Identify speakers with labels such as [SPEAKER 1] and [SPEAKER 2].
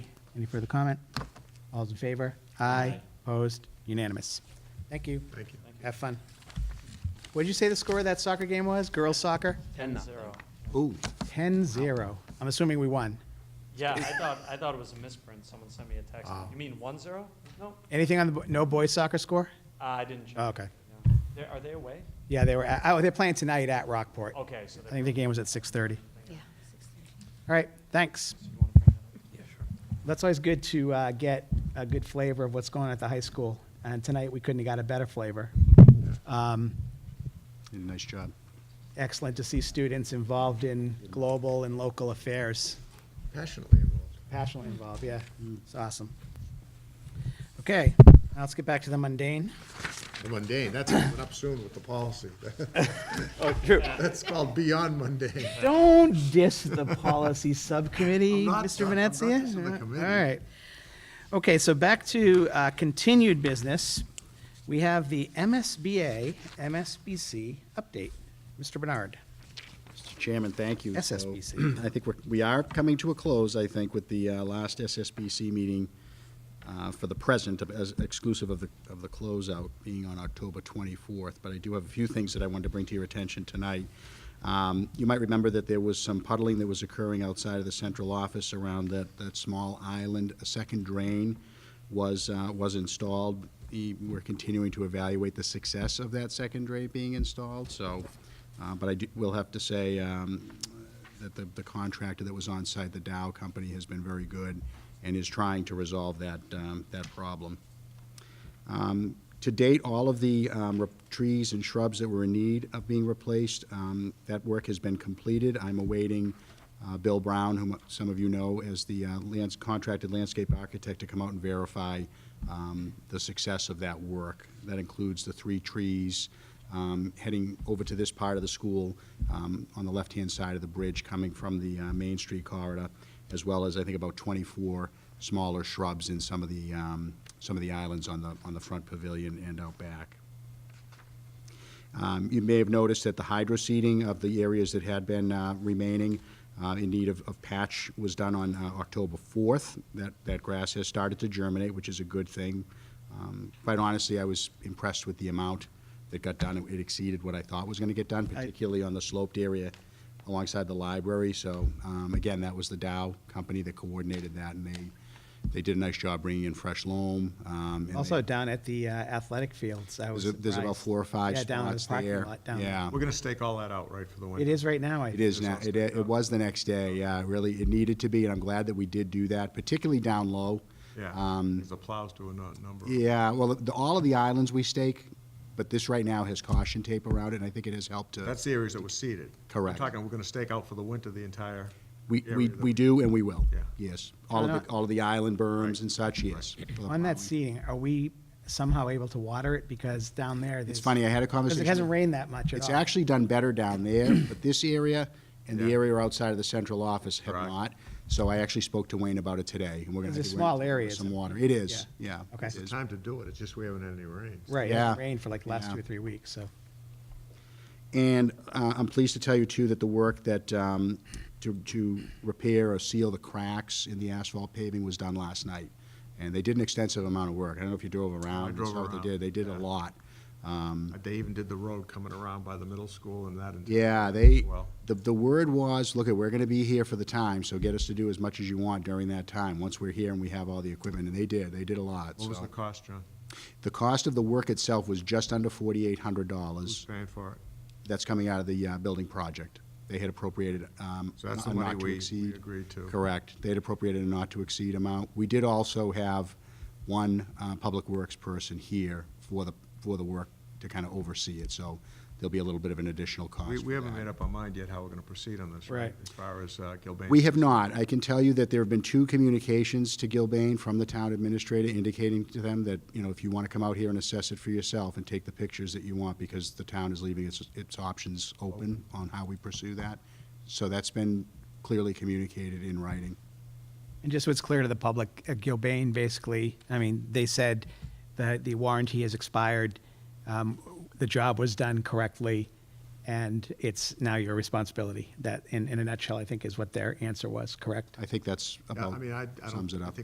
[SPEAKER 1] Any further comment? All's in favor? Aye. Opposed? Unanimous. Thank you.
[SPEAKER 2] Thank you.
[SPEAKER 1] Have fun. What did you say the score of that soccer game was? Girls soccer?
[SPEAKER 3] Ten zero.
[SPEAKER 2] Ooh,
[SPEAKER 1] 10-0. I'm assuming we won.
[SPEAKER 3] Yeah, I thought, I thought it was a misprint. Someone sent me a text.
[SPEAKER 2] Oh.
[SPEAKER 3] You mean one zero? No, uh,
[SPEAKER 1] Anything on the, bo- no boys soccer score?
[SPEAKER 3] I didn't check.
[SPEAKER 1] Oh, okay.
[SPEAKER 3] No. They're- Are they away?
[SPEAKER 1] Yeah, they were, at- oh, they're playing tonight at Rockport. I
[SPEAKER 3] Okay, so they.
[SPEAKER 1] think the game was at 6:30.
[SPEAKER 4] Yeah.
[SPEAKER 1] All right, thanks.
[SPEAKER 3] You wanna bring that up?
[SPEAKER 1] That's always good to uh, get a good flavor of what's going on at the high school, and tonight we couldn't have got a better flavor. Um,
[SPEAKER 2] nice job.
[SPEAKER 1] Excellent to see students involved in global and local affairs,
[SPEAKER 2] Passionately involved.
[SPEAKER 1] passionately involved, yeah,
[SPEAKER 3] Mm.
[SPEAKER 1] it's awesome. Okay, now let's get back to the mundane.
[SPEAKER 2] The mundane, that's coming up soon with the policy.
[SPEAKER 1] Oh, true.
[SPEAKER 2] That's called beyond mundane.
[SPEAKER 1] Don't diss the policy subcommittee,
[SPEAKER 2] I'm not-
[SPEAKER 1] Mr.
[SPEAKER 2] I'm not
[SPEAKER 1] Venezia.
[SPEAKER 2] dissing the committee.
[SPEAKER 1] All right. Okay, so back to uh, continued business. We have the MSBA, MSBC update. Mr. Bernard.
[SPEAKER 5] Mr. Chairman, thank you. So,
[SPEAKER 1] SSBC.
[SPEAKER 5] I think we're, we are coming to a close, I think, with the uh, last SSBC meeting uh, for the present, of- as exclusive of the, of the closeout being on October 24th. But I do have a few things that I wanted to bring to your attention tonight. Um, You might remember that there was some puddling that was occurring outside of the central office around that, that small island. A second drain was, uh, was installed. The- We're continuing to evaluate the success of that second drain being installed, so, uh, but I do- will have to say um, that the the contractor that was on site, the Dow Company, has been very good and is trying to resolve that, um, that problem. Um, To date, all of the um, re- trees and shrubs that were in need of being replaced, um, that work has been completed. I'm awaiting uh, Bill Brown, whom some of you know as the uh, lands- contracted landscape architect, to come out and verify um, the success of that work. That includes the three trees um, heading over to this part of the school um, on the left-hand side of the bridge coming from the uh, Main Street corridor, as well as, I think, about 24 smaller shrubs in some of the, um, some of the islands on the, on the front pavilion and out back. Um, You may have noticed that the hydro seeding of the areas that had been uh, remaining uh, in need of of patch was done on uh, October 4th. That, that grass has started to germinate, which is a good thing. Um, Quite honestly, I was impressed with the amount that got done. It exceeded what I thought was going to get done, particularly on the sloped area alongside the library. So um, again, that was the Dow company that coordinated that, and they, they did a nice job bringing in fresh loam. um, and
[SPEAKER 1] Also
[SPEAKER 5] they-
[SPEAKER 1] down at the uh, athletic fields, I was
[SPEAKER 5] There's a- there's about
[SPEAKER 1] surprised.
[SPEAKER 5] four or five
[SPEAKER 1] Yeah, down in the
[SPEAKER 5] spots
[SPEAKER 1] parking
[SPEAKER 5] there.
[SPEAKER 1] lot, down there.
[SPEAKER 5] Yeah.
[SPEAKER 2] We're gonna stake all that out, right, for the winter?
[SPEAKER 1] It is right now, I
[SPEAKER 5] It is now.
[SPEAKER 2] Results
[SPEAKER 5] It,
[SPEAKER 2] picked
[SPEAKER 5] it
[SPEAKER 2] up.
[SPEAKER 5] was the next day, yeah, really, it needed to be, and I'm glad that we did do that, particularly down low.
[SPEAKER 2] Yeah,
[SPEAKER 5] Um,
[SPEAKER 2] 'cause the plows do a nu- number.
[SPEAKER 5] Yeah, well, the, all of the islands we stake, but this right now has caution tape around it, and I think it has helped to.
[SPEAKER 2] That's the areas that were seeded.
[SPEAKER 5] Correct.
[SPEAKER 2] We're talking, we're gonna stake out for the winter the entire
[SPEAKER 5] We, we,
[SPEAKER 2] area that-
[SPEAKER 5] we do and we will.
[SPEAKER 2] Yeah.
[SPEAKER 5] Yes, all
[SPEAKER 1] No,
[SPEAKER 5] of
[SPEAKER 1] no.
[SPEAKER 5] the, all of the island berms and such, yes. for the
[SPEAKER 1] On that
[SPEAKER 5] plowing.
[SPEAKER 1] seating, are we somehow able to water it? Because down there, there's.
[SPEAKER 5] It's funny, I had a
[SPEAKER 1] Because
[SPEAKER 5] conversation.
[SPEAKER 1] it hasn't rained that much at all.
[SPEAKER 5] It's actually done better down there, but this area and the
[SPEAKER 2] Yeah.
[SPEAKER 5] area outside of the central office have
[SPEAKER 2] Correct.
[SPEAKER 5] not. So I actually spoke to Wayne about it today, and we're gonna.
[SPEAKER 1] It's a
[SPEAKER 5] I think we're
[SPEAKER 1] small
[SPEAKER 5] gonna
[SPEAKER 1] area,
[SPEAKER 5] put Some
[SPEAKER 1] isn't it?
[SPEAKER 5] water. It is, yeah.
[SPEAKER 1] Okay.
[SPEAKER 5] it
[SPEAKER 2] It's the
[SPEAKER 5] is.
[SPEAKER 2] time to do it, it's just we haven't had any rains.
[SPEAKER 1] Right, it
[SPEAKER 5] Yeah.
[SPEAKER 1] hasn't rained for like the last
[SPEAKER 5] Yeah.
[SPEAKER 1] two or three weeks, so.
[SPEAKER 5] And uh, I'm pleased to tell you, too, that the work that, um, to to repair or seal the cracks in the asphalt paving was done last night. And they did an extensive amount of work. I don't know if you drove around. and
[SPEAKER 2] drove
[SPEAKER 5] saw what
[SPEAKER 2] around,
[SPEAKER 5] They did, they did a
[SPEAKER 2] yeah.
[SPEAKER 5] lot.
[SPEAKER 2] Uh, They even did the road coming around by the middle school and that. entire
[SPEAKER 5] Yeah,
[SPEAKER 2] area
[SPEAKER 5] they,
[SPEAKER 2] as Well,
[SPEAKER 5] the, the word was, look, we're gonna be here for the time, so get us to do as much as you want during that time, once we're here and we have all the equipment, and they did, they did a lot,
[SPEAKER 2] what was
[SPEAKER 5] so.
[SPEAKER 2] the cost, John?
[SPEAKER 5] The cost of the work itself was just under forty-eight hundred
[SPEAKER 2] Who's
[SPEAKER 5] dollars.
[SPEAKER 2] paying for it?
[SPEAKER 5] That's coming out of the, uh, building project. They had appropriated, um,
[SPEAKER 2] So that's the
[SPEAKER 5] a
[SPEAKER 2] money
[SPEAKER 5] not to
[SPEAKER 2] we
[SPEAKER 5] exceed.
[SPEAKER 2] we agreed to.
[SPEAKER 5] Correct. They had appropriated a not-to-exceed amount. We did also have one uh, Public Works person here for the, for the work to kind of oversee it, so there'll be a little bit of an additional cost
[SPEAKER 2] We, we
[SPEAKER 5] for
[SPEAKER 2] haven't
[SPEAKER 5] that.
[SPEAKER 2] made up our mind yet how we're gonna proceed on this, right?
[SPEAKER 1] Right.
[SPEAKER 2] As far as uh, Gilbane.
[SPEAKER 5] We have not. I can tell you that there have been two communications to Gilbane from the town administrator indicating to them that, you know, if you want to come out here and assess it for yourself and take the pictures that you want, because the town is leaving its, its options open on how we pursue that. So that's been clearly communicated in writing.
[SPEAKER 1] And just what's clear to the public, uh, Gilbane basically, I mean, they said that the warranty has expired, um, the job was done correctly, and it's now your responsibility. That, in, in a nutshell, I think is what their answer was, correct?
[SPEAKER 5] I think that's
[SPEAKER 2] Yeah, I
[SPEAKER 5] about
[SPEAKER 2] mean, I, I don't
[SPEAKER 5] sums it
[SPEAKER 2] I
[SPEAKER 5] up.
[SPEAKER 2] think